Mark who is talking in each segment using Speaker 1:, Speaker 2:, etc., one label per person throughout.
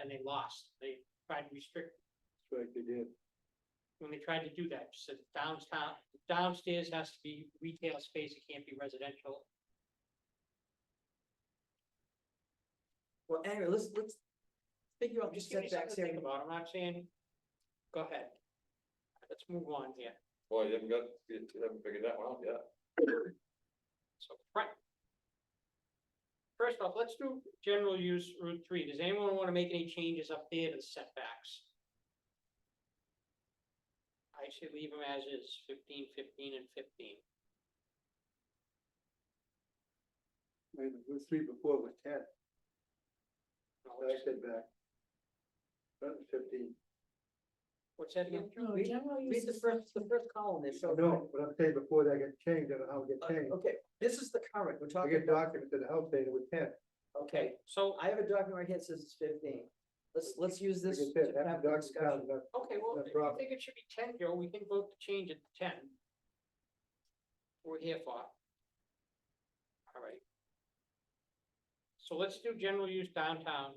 Speaker 1: and they lost. They tried to restrict,
Speaker 2: That's right, they did.
Speaker 1: when they tried to do that, just said downtown, downstairs has to be retail space, it can't be residential.
Speaker 3: Well, anyway, let's, let's figure out just
Speaker 1: Give me something
Speaker 3: setbacks
Speaker 1: to
Speaker 3: here.
Speaker 1: think about. I'm not saying, go ahead. Let's move on here.
Speaker 2: Boy, you haven't got, you haven't figured that one out yet.
Speaker 1: So, right. First off, let's do general use Route three. Does anyone wanna make any changes up there to the setbacks? I should leave them as is, 15, 15, and fifteen.
Speaker 2: I mean, the three before was ten,
Speaker 1: No,
Speaker 2: I
Speaker 1: what's-
Speaker 2: said back. That was fifteen.
Speaker 1: What's that again?
Speaker 3: No, general Read the first, the first column there, so.
Speaker 2: No, but I'm saying before that got changed, I don't know how it
Speaker 3: Uh,
Speaker 2: got changed.
Speaker 3: Okay, this is the current, we're
Speaker 2: I
Speaker 3: talking
Speaker 2: get
Speaker 3: about,
Speaker 2: documents in the health data with ten.
Speaker 3: okay,
Speaker 1: So,
Speaker 3: I have a document right here that says it's fifteen. Let's, let's use
Speaker 2: Like I
Speaker 3: this
Speaker 2: said,
Speaker 3: to
Speaker 2: that
Speaker 3: have the discussion.
Speaker 2: document, that-
Speaker 1: okay, well,
Speaker 2: No
Speaker 1: if you
Speaker 2: problem.
Speaker 1: think it should be ten, Joe, we can vote to change it to ten. We're here for. All right. So let's do general use downtown.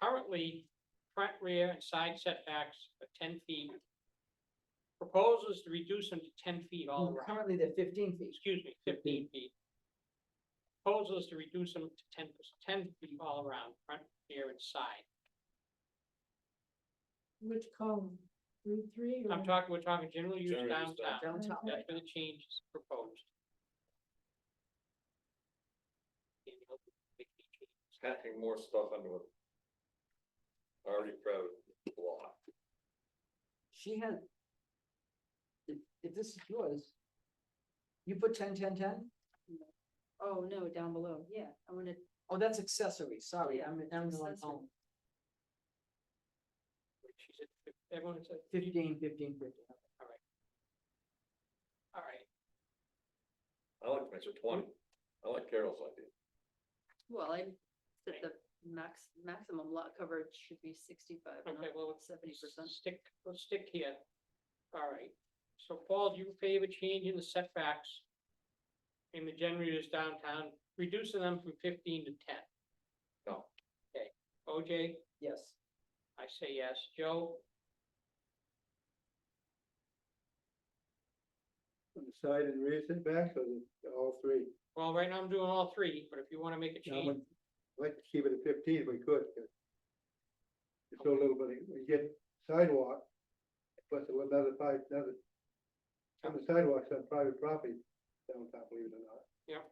Speaker 1: Currently, front, rear, and side setbacks are ten feet. Proposal is to reduce them to ten feet all
Speaker 3: Well,
Speaker 1: around,
Speaker 3: Currently, they're fifteen feet.
Speaker 1: excuse me, fifteen feet. Proposal is to reduce them to 10 10 feet all around, front, rear, and side.
Speaker 4: Which column, Route three?
Speaker 1: I'm talking, we're talking general use
Speaker 2: General use
Speaker 1: downtown.
Speaker 3: Downtown,
Speaker 1: That's where the change is proposed. Any other big changes?
Speaker 2: Packing more stuff under it. Already crowded block.
Speaker 3: she had. If, if this is yours, you put ten, ten, ten?
Speaker 4: Oh, no, down below, yeah, I wanna,
Speaker 3: Oh, that's accessory, sorry,
Speaker 4: Yeah,
Speaker 3: I'm, I'm the one
Speaker 4: accessory.
Speaker 3: home,
Speaker 1: Which is at fif- Everyone said,
Speaker 3: fifteen, fifteen, fifteen.
Speaker 1: all right,
Speaker 2: I like to mention twenty. I like Carol's idea.
Speaker 4: well, I said the max, maximum lot coverage should be sixty-five,
Speaker 1: okay, well,
Speaker 4: not
Speaker 1: let's
Speaker 4: seventy percent.
Speaker 1: stick, let's stick here. All right, so Paul, do you favor changing the setbacks in the general use downtown, reducing them from fifteen to ten?
Speaker 2: No.
Speaker 1: Okay, OJ?
Speaker 3: Yes,
Speaker 1: I say yes. Joe?
Speaker 2: On the side and rear setbacks or the, all three?
Speaker 1: Well, right now I'm doing all three, but if you wanna make a
Speaker 2: I
Speaker 1: change,
Speaker 2: would like to keep it at fifteen if we could. 'cause It's so little, but we get sidewalk, plus another five, another. On the sidewalks on private property downtown, believe it or not.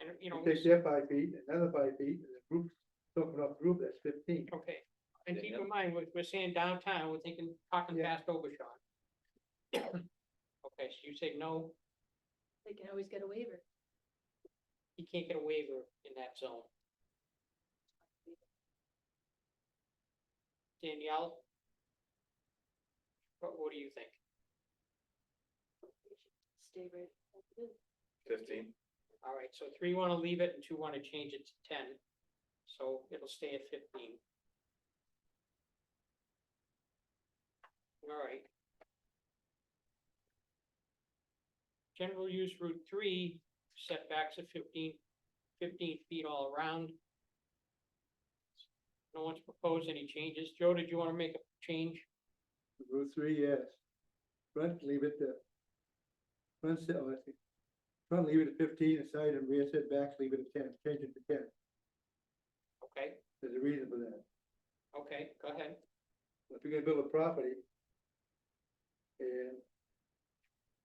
Speaker 1: and you know.
Speaker 2: You take their five feet, another five feet, and the group, so for enough group, that's fifteen.
Speaker 1: Okay, and
Speaker 2: Yeah,
Speaker 1: keep
Speaker 2: yeah.
Speaker 1: in mind, we're, we're saying downtown, we're thinking, talking
Speaker 2: Yeah.
Speaker 1: past Obashan. Okay, so you say no,
Speaker 4: They can always get a waiver.
Speaker 1: you can't get a waiver in that zone. Danielle? What, what do you think?
Speaker 4: Stay right. as it is.
Speaker 2: Fifteen.
Speaker 1: All right, so three wanna leave it and two wanna change it to ten, so it'll stay at fifteen. All right. General use Route three setbacks of 15 15 feet all around. No one's proposed any changes. Joe, did you wanna make a change?
Speaker 2: Route three, yes. Front, leave it to. Front, set- oh, I think. Front, leave it at fifteen, the side and rear setbacks, leave it at ten, change it to ten.
Speaker 1: Okay,
Speaker 2: There's a reason for that.
Speaker 1: okay, go ahead.
Speaker 2: if you're gonna build a property. And.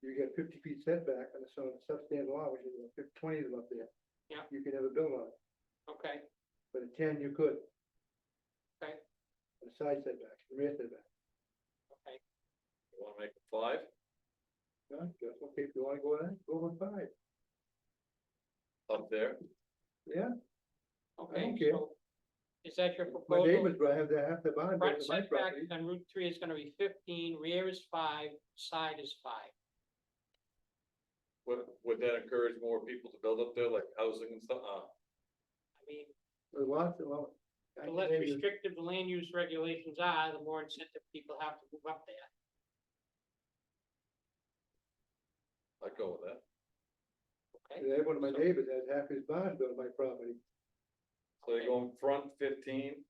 Speaker 2: You get fifty feet setback on a sort of substandard lot, which is about fif- twenty is up there.
Speaker 1: Yeah.
Speaker 2: You can never build on it,
Speaker 1: Okay,
Speaker 2: but at ten you could.
Speaker 1: Okay.
Speaker 2: On a side setback, the rear setback.
Speaker 1: okay.
Speaker 2: You wanna make it five? Yeah, that's okay, if you wanna go there, go with five. Up there? Yeah,
Speaker 1: Okay,
Speaker 2: don't care.
Speaker 1: so is that your
Speaker 2: my
Speaker 1: proposal?
Speaker 2: neighbors, I have to have to buy, my
Speaker 1: Front setback
Speaker 2: property,
Speaker 1: on Route three is gonna be fifteen, rear is five, side is five.
Speaker 5: Would, would that encourage more people to build up there, like housing and stuff,
Speaker 1: I
Speaker 5: uh,
Speaker 1: mean,
Speaker 2: the lots, the lot. I
Speaker 1: the
Speaker 2: can
Speaker 1: less
Speaker 2: name you-
Speaker 1: restrictive the land use regulations are, the more incentive people have to move up there.
Speaker 5: I'd go with that.
Speaker 1: Okay,
Speaker 2: Every one of my
Speaker 1: So-
Speaker 2: neighbors has half his barn built on my property.
Speaker 5: So you're going front fifteen,